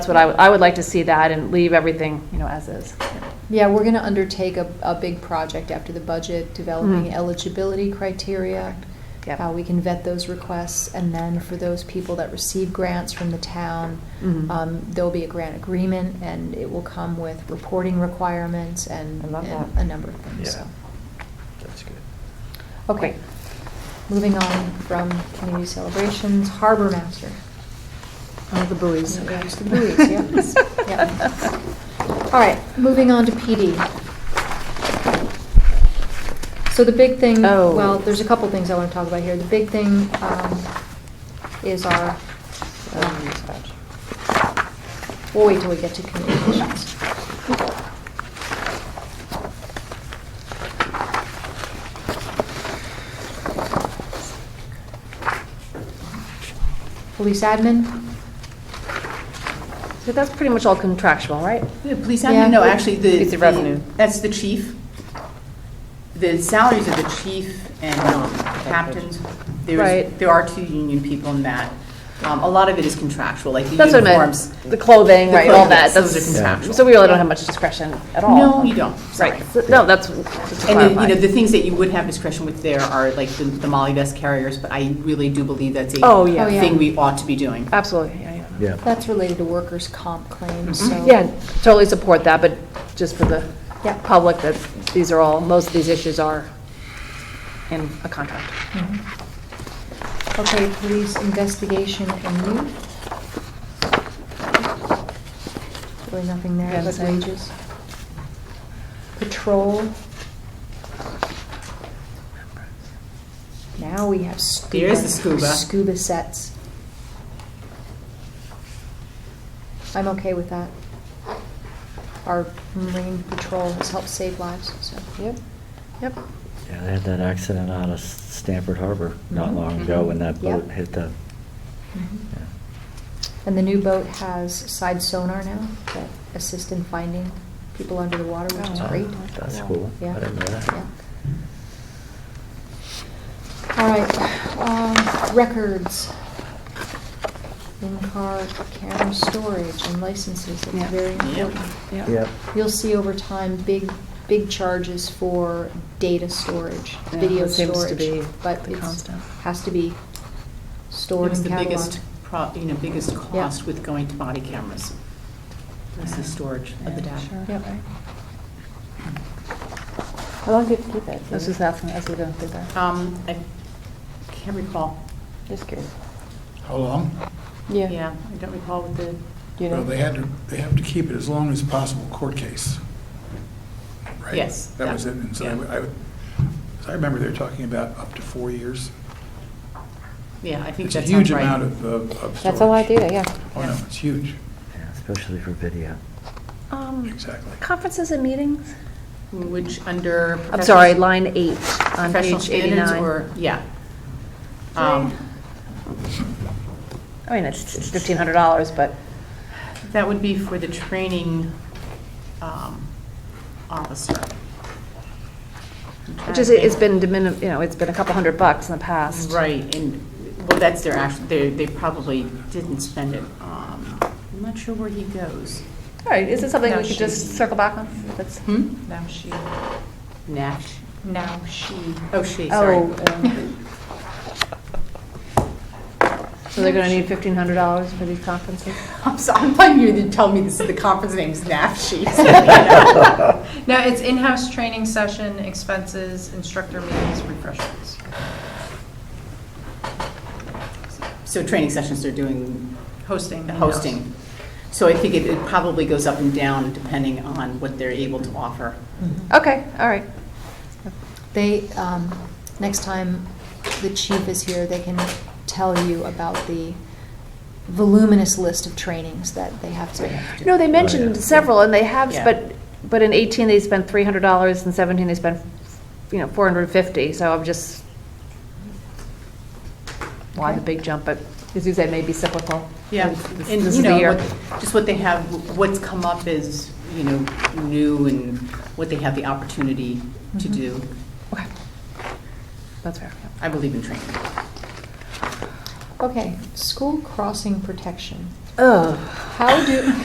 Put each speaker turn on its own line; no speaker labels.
That's what I would, I would like to see that and leave everything, you know, as is.
Yeah, we're going to undertake a, a big project after the budget, developing
Mhm.
eligibility criteria,
Yep.
how we can vet those requests, and then for those people that receive grants from the town,
Mhm.
um, there'll be a grant agreement, and it will come with reporting requirements and
I love
and
that.
a number of things, so.
Yeah. That's good.
Okay,
Great.
moving on from community celebrations, harbor master.
Oh, the buoys.
Yeah, it's the buoys, yeah. Yeah. All right, moving on to PD. So the big thing,
Oh.
well, there's a couple things I want to talk about here. The big thing um, is our, um, we'll wait till we get to communications. Police admin?
So that's pretty much all contractual, right?
The police
Yeah.
admin, no, actually, the.
It's the revenue.
That's the chief. The salaries of the chief and
Oh,
um, captains. There's-
Right.
There are two union people in that. Um, A lot of it is contractual, like the
That's what I
uniforms.
meant, the clothing,
The
right, all
clothing,
that.
yes, those
That's-
are contractual.
So we really don't have much discretion at all.
No, you don't, sorry.
Right, So- no, that's, just to
And then, you know,
clarify.
the things that you would have discretion with there are like the- the Molly vest carriers, but I really do believe that's a.
Oh, yeah.
Oh, yeah.
Thing we ought to be doing.
Absolutely, yeah, yeah.
Yeah.
That's related to workers' comp claims, so.
Mm-hmm. Yeah, totally support that, but just for the
Yeah.
public, that these are all, most of these issues are in a contract.
Mhm. Okay, police investigation and youth. Really nothing there
Yeah,
but
same.
wages. Patrol. Now we have scuba.
There's the scuba.
Scuba sets. I'm okay with that. Our marine patrol has helped save lives, so.
Yep, yep.
Yeah, they had that accident out of Stamford Harbor not
Mhm.
long ago when that
Yeah.
boat hit the,
Mm-hmm.
Mhm.
yeah.
And the new boat has side sonar now that assist in finding people under the water, which is
Oh,
great.
That's cool. I
Yeah.
didn't know that.
Yeah. All right, um, records. In-car camera storage and licenses,
Yeah.
it's very
Yep.
important.
Yep.
You'll see over time, big, big charges for data storage,
Yeah,
video
it seems
storage.
to be
But
the
it's,
constant.
has to be
It
stored
was
and
the
cataloged.
biggest, pro- you know, biggest cost with going to body cameras. Was the storage of the data.
Yep.
How long do you have to keep that?
This is nothing, as we don't do that.
Um, I can't recall.
Just curious.
How long?
Yeah.
Yeah, I don't recall what the,
You
Well, they
know,
had to, they have to keep it as long as possible court case. right?
Yes,
That was
yeah,
it, and so I
yeah.
would- I, would- so I remember they were talking about up to four years.
yeah, I think
It's a
that
huge
sounds right.
amount of, of of storage.
that's a lot data, yeah.
Oh, no, it's huge,
Yeah, Especially for video.
Um,
exactly.
Conferences and meetings?
Which under.
I'm sorry,
professional-
line eight on
Professional
page
standards
89.
or, yeah.
Right.
Um,
I mean, it's it's $1,500, but
That would be for the training um, officer. I'm trying
Which
to
is, it's
think.
been, dimin- you know, it's been a couple hundred bucks in the past.
Right, and, well, that's their actual, they, they probably didn't spend it. Um, I'm not sure where he goes.
All right, is it something we
Now
could
she's-
just circle back on? That's,
Hmm?
Now she,
Nash,
now she.
oh, she, sorry.
oh. um, So they're gonna need $1,500 for these conferences?
I'm sorry, I'm telling you to tell me this, the conference name's NAFSHE.
No, it's in-house training session, expenses, instructor meetings, refreshments.
So training sessions they're doing,
Hosting.
the hosting. So I think it it probably goes up and down depending on what they're able to offer.
Okay, all right.
They, um, next time the chief is here, they can tell you about the voluminous list of trainings that they have to.
No, they mentioned
yeah.
several, and they have,
Oh, Yeah.
but, but in 18, they spent $300, in 17, they spent, you know, 450, so I'm just, why the
Okay.
big jump, but as you said, maybe cyclical.
Yeah,
This-
and
this
you
is the
know,
year.
what- just what they have, what's come up is, you know, new and what they have the opportunity
Mm-hmm.
to
Mhm.
do.
Okay. That's fair. yeah.
I believe in training.
Okay, school crossing protection.
Ugh. How do,